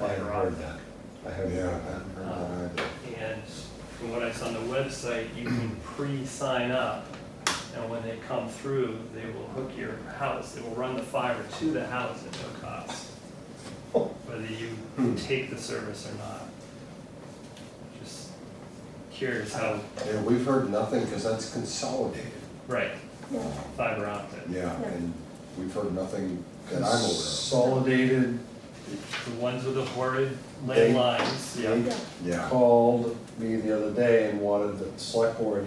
I haven't later on. heard that. I haven't heard Yeah. that. heard that either. And from what I saw on the website, you can pre-sign up, and when they come through, they will hook your house, they will run the fiber to the house at no cost, whether Hmm. you take the service or not. Just curious how, Yeah, we've heard nothing because that's consolidated. right, No. fiber optic, Yeah, and we've heard nothing that I'm aware Consolidated the ones with the horrid lead They- lines, yeah, Inc. of. Yeah, called me the other day and wanted the select board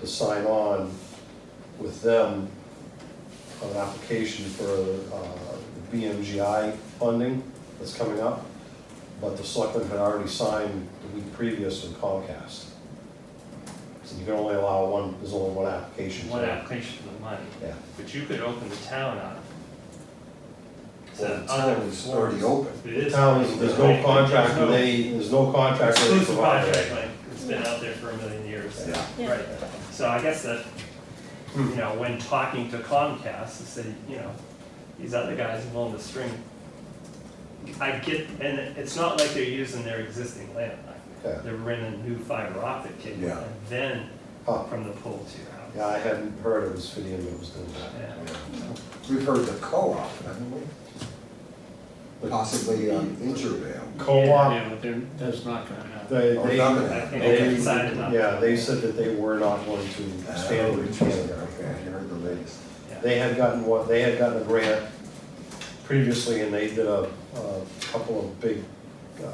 to sign on with them on an application for uh, BMGI funding that's coming up. But the selectmen had already signed the week previous with Comcast. So you can only allow one, there's only one application. one for it. application for the money, Yeah. but you could open the town up. to well, the other town is already forms. open. It is. Town, is- there's no contract with any, there's no contract with any Exclusive provider. contract, like, it's been out there for a million years. Yeah. Yeah. Right, so I guess that, Hmm. you know, when talking to Comcast, to say, you know, these other guys are willing to string. I get, and it's not like they're using their existing landline. Yeah. They're renting new fiber optic cable, Yeah. and then Huh. from the pole to your Oh, Yeah, house. I hadn't heard it was Fidium that was doing that. Yeah. We've heard the co-op, haven't we? But Possibly um, Intervale. Co-op, Yeah, but they're, that's not gonna happen. they, Or they, Oh, not I gonna think happen. they they- decided not. yeah, they said that they were not going to Oh, expand it. interesting. Oh, Okay, I heard the latest. Yeah. They had gotten what, they had gotten a grant previously and they did a, a couple of big, uh,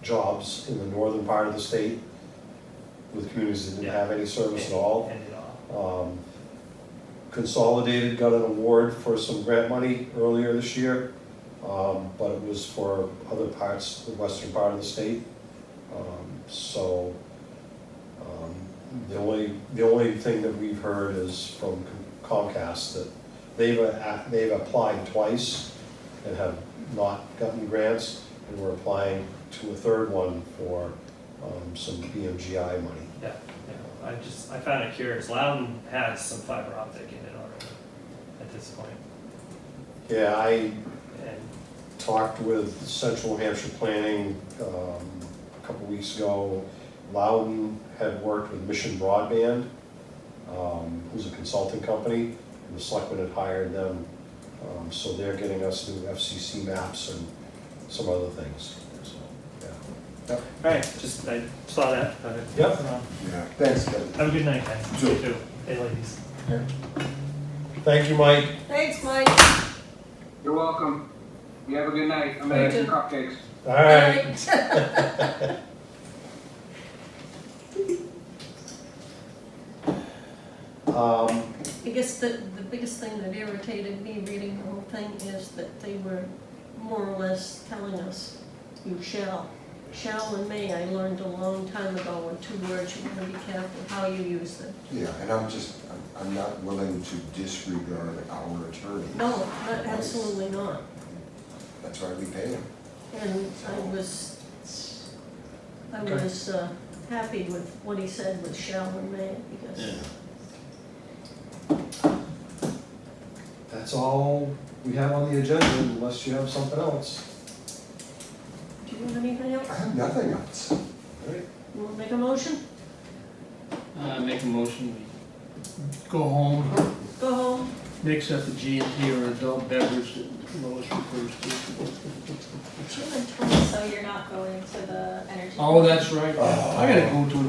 jobs in the northern part of the state with communities that didn't have any service at all. End it all. Um, Consolidated got an award for some grant money earlier this year, um, but it was for other parts, the western part of the state. Um, So, um, the only, the only thing that we've heard is from Comcast that they've, a- they've applied twice and have not gotten grants, and we're applying to a third one for um, some BMGI money. Yeah, yeah, I just, I found it curious, Loudon has some fiber optic in it already at this point, Yeah, I and talked with Central Hampshire Planning um, a couple weeks ago. Loudon had worked with Mission Broadband, um, who's a consulting company, and the selectmen had hired them. Um, So they're getting us new FCC maps and some other things, so, yeah. Alright, just, I saw that, but. Yep. Yeah, thanks, Kevin. Have a good night, guys. Sure. You too. Hey, ladies. Thank you, Mike. Thanks, Mike. You're welcome. You have a good night. I'm gonna have some cupcakes. All right. Um, I guess the, the biggest thing that irritated me reading the whole thing is that they were more or less telling us, you shall. Shall and may, I learned a long time ago, are two words, you wanna be careful how you use them. Yeah, and I'm just, I'm- I'm not willing to disregard our attorney. No, not, absolutely not. That's why we pay him. And I was, I was uh, happy with what he said with shall and may, because Yeah. That's all we have on the agenda unless you have something else. Do you have anything else? I have nothing else. All right. You want to make a motion? Uh, make a motion, we go home, Go home. mix up the G and T or adult beverage that Lois refers to. So you're not going to the energy. Oh, that's right, I gotta go to